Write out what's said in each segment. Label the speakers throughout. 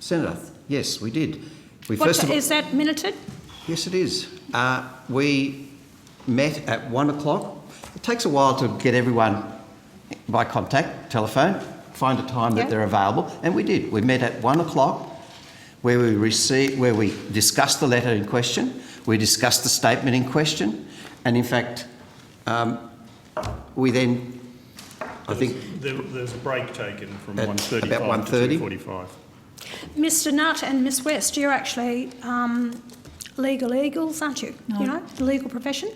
Speaker 1: Senator, yes, we did. We
Speaker 2: What
Speaker 1: first of
Speaker 2: ti-
Speaker 1: all-
Speaker 2: is that minuted?
Speaker 1: Yes, it is. Uh, we met at one o'clock. It takes a while to get everyone by contact, telephone, find a time that
Speaker 2: Yeah.
Speaker 1: they're available, and we did. We met at one o'clock, where we received, where we discussed the letter in question, we discussed the statement in question, and in fact, um, we then, I think,
Speaker 3: There, there's a break taken from
Speaker 1: At
Speaker 3: 1.35
Speaker 1: about
Speaker 3: to
Speaker 1: 1:30?
Speaker 3: 2.45.
Speaker 2: Mr Nutt and Miss West, you're actually um, legal eagles, aren't you? You know, the legal profession?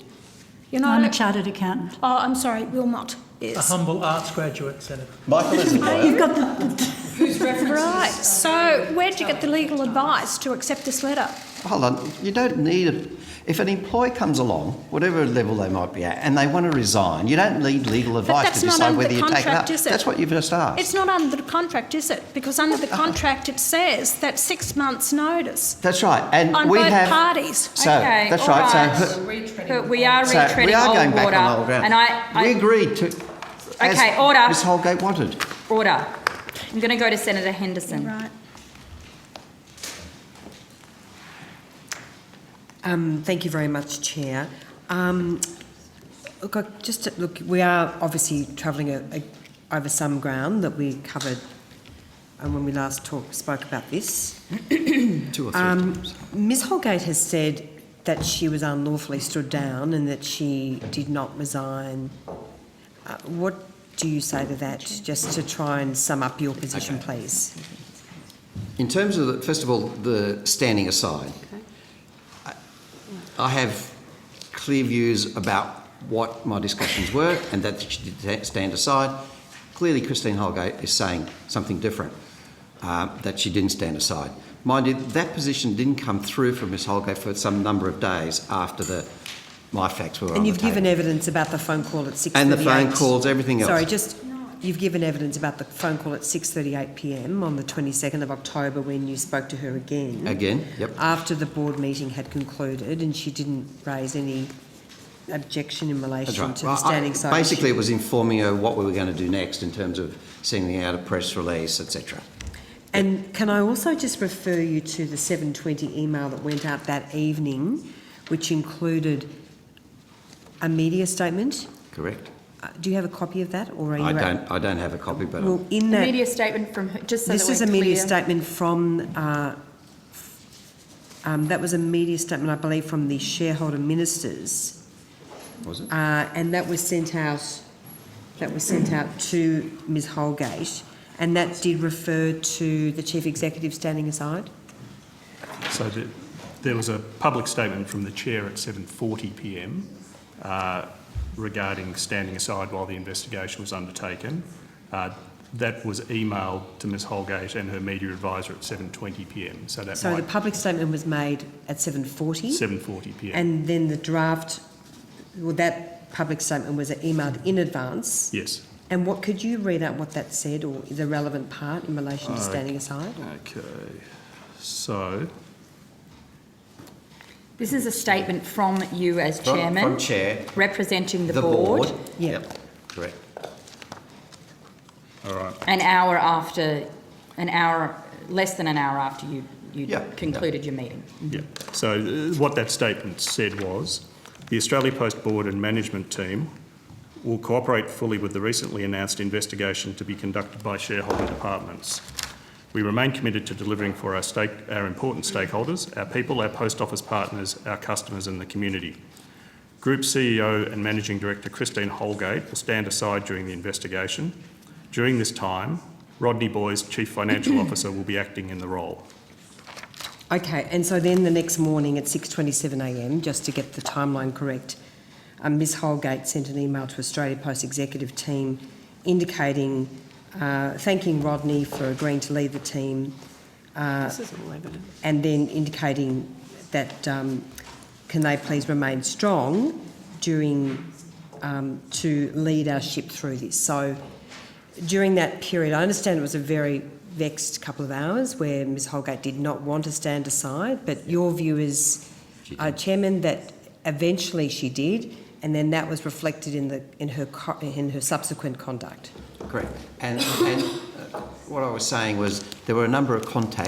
Speaker 2: You're not...
Speaker 4: I'm a chartered accountant.
Speaker 2: Oh, I'm sorry, Wilmot,
Speaker 5: A
Speaker 2: yes.
Speaker 5: humble arts graduate, Senator.
Speaker 1: Michael is a lawyer.
Speaker 4: You've got the,
Speaker 2: Right, so where'd you get the legal advice to accept this letter?
Speaker 1: Hold on, you don't need a. If an employee comes along, whatever level they might be at, and they want to resign, you don't need legal advice
Speaker 2: that's
Speaker 1: to
Speaker 2: not
Speaker 1: decide
Speaker 2: under
Speaker 1: whether you
Speaker 2: the
Speaker 1: take it up.
Speaker 2: contract, is it?
Speaker 1: That's what you've just asked.
Speaker 2: It's not under the contract, is it? Because under the contract, it says that six months' notice.
Speaker 1: that's right, and
Speaker 2: On
Speaker 1: we
Speaker 2: both
Speaker 1: have
Speaker 2: parties.
Speaker 1: So
Speaker 6: Okay,
Speaker 1: that's
Speaker 6: all
Speaker 1: right. So,
Speaker 6: right. But we are
Speaker 1: so we
Speaker 6: retreading
Speaker 1: are going
Speaker 6: old
Speaker 1: back
Speaker 6: water.
Speaker 1: on old ground.
Speaker 6: And I,
Speaker 1: we
Speaker 6: I,
Speaker 1: agreed to. as
Speaker 6: Okay, order.
Speaker 1: Ms Holgate wanted.
Speaker 6: order. I'm going to go to Senator Henderson.
Speaker 2: Right.
Speaker 7: Um, Thank you very much, Chair. Um, Look, I just, look, we are obviously travelling a- a- over some ground that we covered um, when we last talked, spoke about this.
Speaker 1: Two or three
Speaker 7: Um,
Speaker 1: times.
Speaker 7: Ms Holgate has said that she was unlawfully stood down and that she did not resign. Uh, What do you say to that, just to try and sum up your position, please?
Speaker 1: In terms of, the, first of all, the standing aside, I, I have clear views about what my discussions were and that she did ta- stand aside. Clearly, Christine Holgate is saying something different, uh, that she didn't stand aside. Mind you, that position didn't come through from Ms Holgate for some number of days after the, my facts were on
Speaker 7: And you've
Speaker 1: the table.
Speaker 7: given evidence about the phone call at 6:38.
Speaker 1: And the phone calls, everything else.
Speaker 7: Sorry, just, you've given evidence about the phone call at 6:38 PM on the 22nd of October when you spoke to her again.
Speaker 1: Again, yep.
Speaker 7: After the board meeting had concluded and she didn't raise any objection in
Speaker 1: That's
Speaker 7: relation
Speaker 1: right.
Speaker 7: to the
Speaker 1: Well, I-
Speaker 7: standing side.
Speaker 1: Basically, it was informing her what we were going to do next in terms of sending out a press release, etc.
Speaker 7: And can I also just refer you to the 7:20 email that went out that evening, which included a media statement?
Speaker 1: Correct.
Speaker 7: Uh, Do you have a copy of that or are you?
Speaker 1: I
Speaker 7: a-
Speaker 1: don't. I don't have a copy, but
Speaker 7: Well, in that.
Speaker 6: Media statement from, her- just so that
Speaker 7: This is
Speaker 6: we're
Speaker 7: a media
Speaker 6: clear.
Speaker 7: statement from, uh, um, that was a media statement, I believe, from the shareholder ministers.
Speaker 1: was it?
Speaker 7: Uh, and that was sent out, that was sent out to Ms Holgate. And that did refer to the chief executive standing aside.
Speaker 3: So the, there was a public statement from the chair at 7.40pm uh, regarding standing aside while the investigation was undertaken. Uh, that was emailed to Ms Holgate and her media advisor at 7.20pm. So that
Speaker 7: So the
Speaker 3: might...
Speaker 7: public statement was made at seven forty.
Speaker 3: 7.40pm.
Speaker 7: And then the draft, well, that public statement was emailed in advance.
Speaker 3: yes.
Speaker 7: And what, could you read out what that said or the relevant part in relation
Speaker 1: Uh,
Speaker 7: to standing aside?
Speaker 3: Okay. So...
Speaker 6: This is a statement from you as
Speaker 1: From-
Speaker 6: chairman.
Speaker 1: from chair,
Speaker 6: Representing the,
Speaker 1: the board.
Speaker 7: Yeah.
Speaker 1: Yep. Correct.
Speaker 3: All right.
Speaker 6: An hour after, an hour, less than an hour after you, you
Speaker 1: Yeah, yeah.
Speaker 6: concluded your meeting.
Speaker 3: Yeah, so uh, what that statement said was, "The Australia Post Board and management team will cooperate fully with the recently announced investigation to be conducted by shareholder departments. We remain committed to delivering for our stake, our important stakeholders, our people, our post office partners, our customers and the community. Group CEO and Managing Director Christine Holgate will stand aside during the investigation. During this time, Rodney Boys, Chief Financial Officer, will be acting in the role.
Speaker 7: Okay, and so then the next morning at six twenty-seven AM, just to get the timeline correct, um, Ms Holgate sent an email to Australia Post executive team indicating, uh, thanking Rodney for agreeing to lead the team. Uh, and then indicating that, um, can they please remain strong during, um, to lead our ship through this. So during that period, I understand it was a very vexed couple of hours where Ms Holgate did not want to stand aside, but your view is, uh, Chairman, that eventually she did, and then that was reflected in the in her co- in her subsequent conduct.
Speaker 1: Correct. And, and uh, what I was saying was there were a number of contacts.